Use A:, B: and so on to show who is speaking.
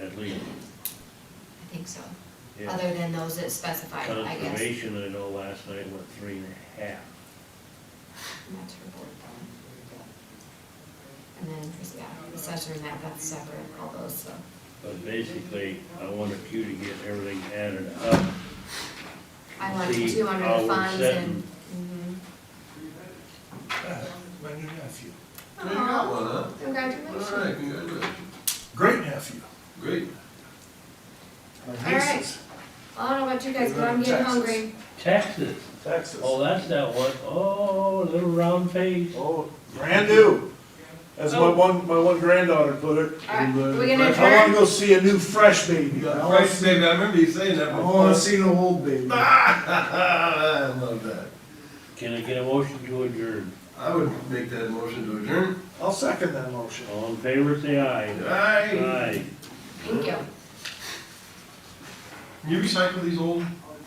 A: at least.
B: I think so,
A: Yeah.
B: other than those that specified, I guess.
A: Conservation, I know last night went three and a half.
B: And That's her board though. And then, yeah, the session and that, that's separate, all those, so.
A: But basically, I wanted you to get everything added up.
B: I want
A: See
B: two under
A: how
B: the
A: we're
B: funds and.
A: sitting.
B: mhm.
C: My new nephew,
D: There you got one, huh?
B: Congratulations.
D: All right, congratulations.
C: great nephew,
D: Great.
C: my
B: right.
C: nieces,
B: Well, I don't know about you guys, but I'm getting
C: Texas.
B: hungry.
A: Taxes,
C: Texas.
A: oh, that's that one. Oh, little round face.
C: Oh, brand new, as my one, my one granddaughter put it. uh,
B: All right, are we gonna
C: I wanna
B: adjourn?
C: go see a new fresh baby, I wanna
D: Right,
C: see,
D: baby, I remember you saying that
C: I
D: before.
C: wanna see no old baby.
D: I love that.
A: Can I get a motion to adjourn?
D: I would make that motion to adjourn.
C: I'll second that motion.
A: All in favor, say aye.
D: Aye.
A: Aye.
B: Thank you.
D: Can you recycle these old